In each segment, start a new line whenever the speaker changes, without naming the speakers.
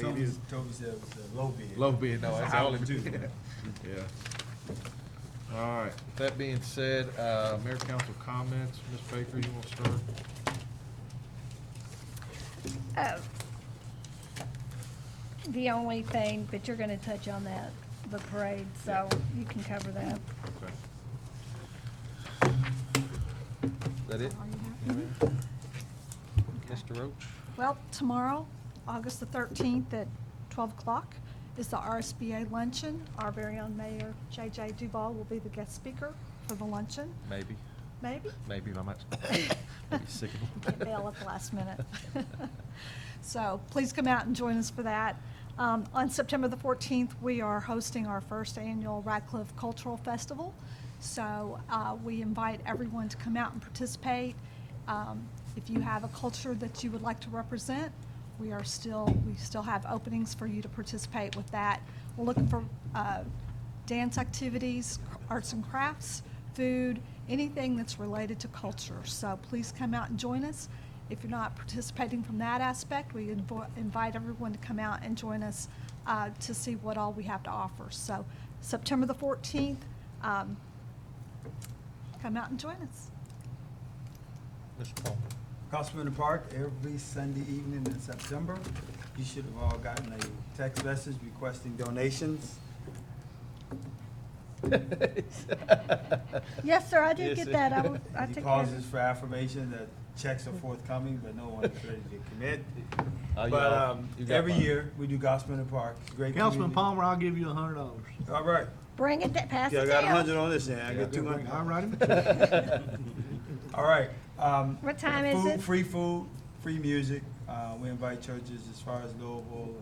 It
Toby
is
Toby said it was a low bid.
low bid, no,
It's
that's
a
all
house,
it
too.
is. Yeah. All right, that being said, uh, Mayor Council comments, Ms. Baker, you want to start?
Uh, The only thing, but you're gonna touch on that, the parade, so you can cover that.
Okay. Is that it? Mr. Roach?
Well, tomorrow, August the 13th at 12 o'clock, is the RSBA luncheon. Our very own mayor, J.J. Duval, will be the guest speaker for the luncheon,
Maybe,
maybe?
maybe not much.
Can't bail at the last minute. So please come out and join us for that. Um, On September the 14th, we are hosting our first annual Radcliffe Cultural Festival. So uh, we invite everyone to come out and participate. Um, If you have a culture that you would like to represent, we are still, we still have openings for you to participate with that. We're looking for uh, dance activities, arts and crafts, food, anything that's related to culture. So please come out and join us. If you're not participating from that aspect, we invo- invite everyone to come out and join us uh, to see what all we have to offer. So September the 14th, um, come out and join us.
Mr. Paul?
Gospel in the Park, every Sunday evening in September. You should have all gotten a text message requesting donations.
Yes, sir, I did
Yes,
get that. I
sir.
will- I
He
took care of
pauses
it.
for affirmation that checks are forthcoming, but no one is ready to commit.
Oh, you
But
all-
um,
you got
every
mine.
year, we do Gospel in the Park. It's a Great
Councilman
community.
Palmer, I'll give you a hundred dollars.
All right.
Bring it, da- pass
Yeah, I
it
got a hundred
down.
on this, and I get two hundred.
All righty.
All right. um,
What time is
food-
it?
Free food, free music. Uh, we invite churches as far as Louisville,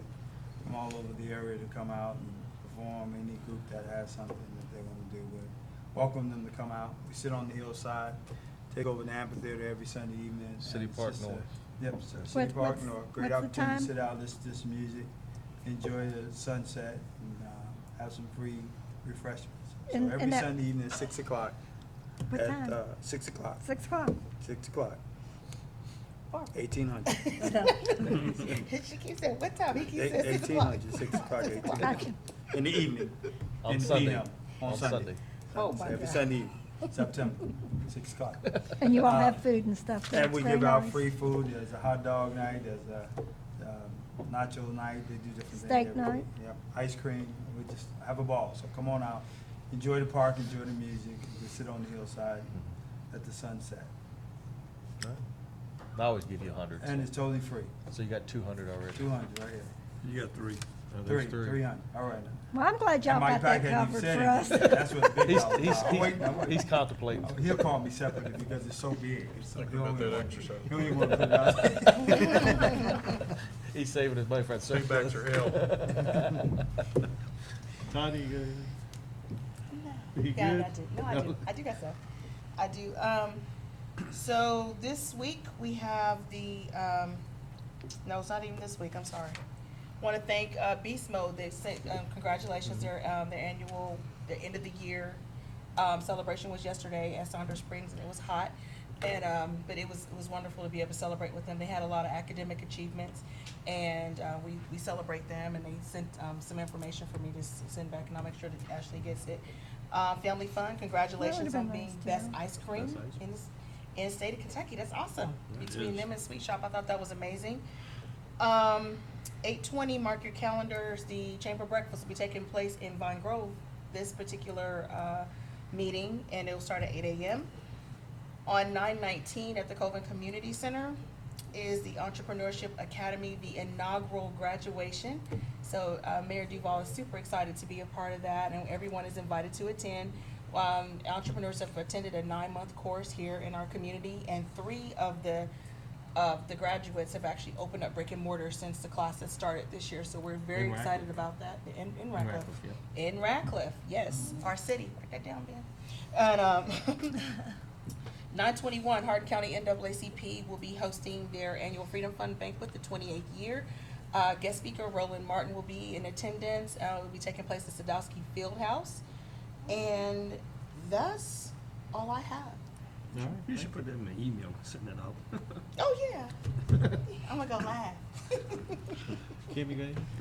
from all over the area to come out and perform. Any group that has something that they want to do, we welcome them to come out. We sit on the hillside, take over the amphitheater every Sunday evening. and
City
it's
Park
just a-
North.
Yep, so
What-
City Park
what's-
North.
what's
Great
the
opportunity to
time?
sit out, listen to some music, enjoy the sunset, and uh, have some free refreshments. So
And-
every
and that-
Sunday evening, at six o'clock.
What
at,
time?
uh, Six o'clock.
Six o'clock.
Six o'clock. Eighteen hundred.
She keeps saying, what time? He keeps saying six
Eighteen
o'clock.
hundred, six o'clock, eighteen
Gotcha.
hundred. In the evening.
On
In the
Sunday.
evening,
On
On
Sunday.
Sunday.
Oh, my
Every
God.
Sunday evening, September, six o'clock.
And you all
Uh,
have food and stuff. there.
And
It's
we
very
give out
nice.
free food, there's a hot dog night, there's a um, nacho night, they do different things.
Steak
every-
night.
Yep, ice cream, we just have a ball, so come on out, enjoy the park, enjoy the music, we sit on the hillside at the sunset,
I always give you a hundred,
and it's totally free,
so you got two hundred already.
two hundred right here.
You got three.
Oh, there's
Three, three hundred, all right.
Well, I'm glad y'all
And
got
Mike
that
Pack hadn't
covered
even
for us.
said anything. That's what the big
He's,
dog.
he's,
Oh,
he's-
wait, no, wait.
he's contemplating.
Oh, He'll call me separately because it's so big. It's like,
Thinking
he
about
only
that
want-
exercise.
He only want to put it out.
He's saving his money for that surplus.
Paybacks are
Tony, you got it? You
Yeah,
good?
I do. No, I do. I do got stuff. I do. Um, so this week we have the, um, no, it's not even this week. I'm sorry. Want to thank uh, Beast Mode. They sent um, congratulations. Their um, their annual, the end of the year um, celebration was yesterday at Saunders Springs, and it was hot. And um, but it was it was wonderful to be able to celebrate with them. They had a lot of academic achievements, and uh, we we celebrate them. And they sent um, some information for me to s- send back, and I'll make sure that Ashley gets it. Uh, Family Fun, congratulations on
been
being
nice to
best
know.
ice cream
Best ice
in this, in the state of Kentucky. That's awesome.
That
Between
is.
them and Sweet Shop, I thought that was amazing. Um, eight twenty, mark your calendars, the chamber breakfast will be taking place in Vine Grove, this particular, uh, meeting, and it'll start at eight AM. On nine nineteen at the Coven Community Center is the Entrepreneurship Academy, the inaugural graduation. So, uh, Mayor Duval is super excited to be a part of that, and everyone is invited to attend. Um, entrepreneurs have attended a nine-month course here in our community, and three of the of the graduates have actually opened up brick and mortar since the class has started this year. So we're very
In Radcliffe.
excited about that in, in Radcliffe.
Radcliffe,
In Radcliffe, yes, our city. Write that down, Ben. And um, 921 Hardin County NAACP will be hosting their annual Freedom Fund banquet, the 28th year. Uh, guest speaker Roland Martin will be in attendance. Uh, it will be taking place at Sadowski Fieldhouse. And that's all I have.
All right,
You
thank
should put that in the email, send that out.
Oh, yeah. I'm gonna go live.
Kim, you got anything?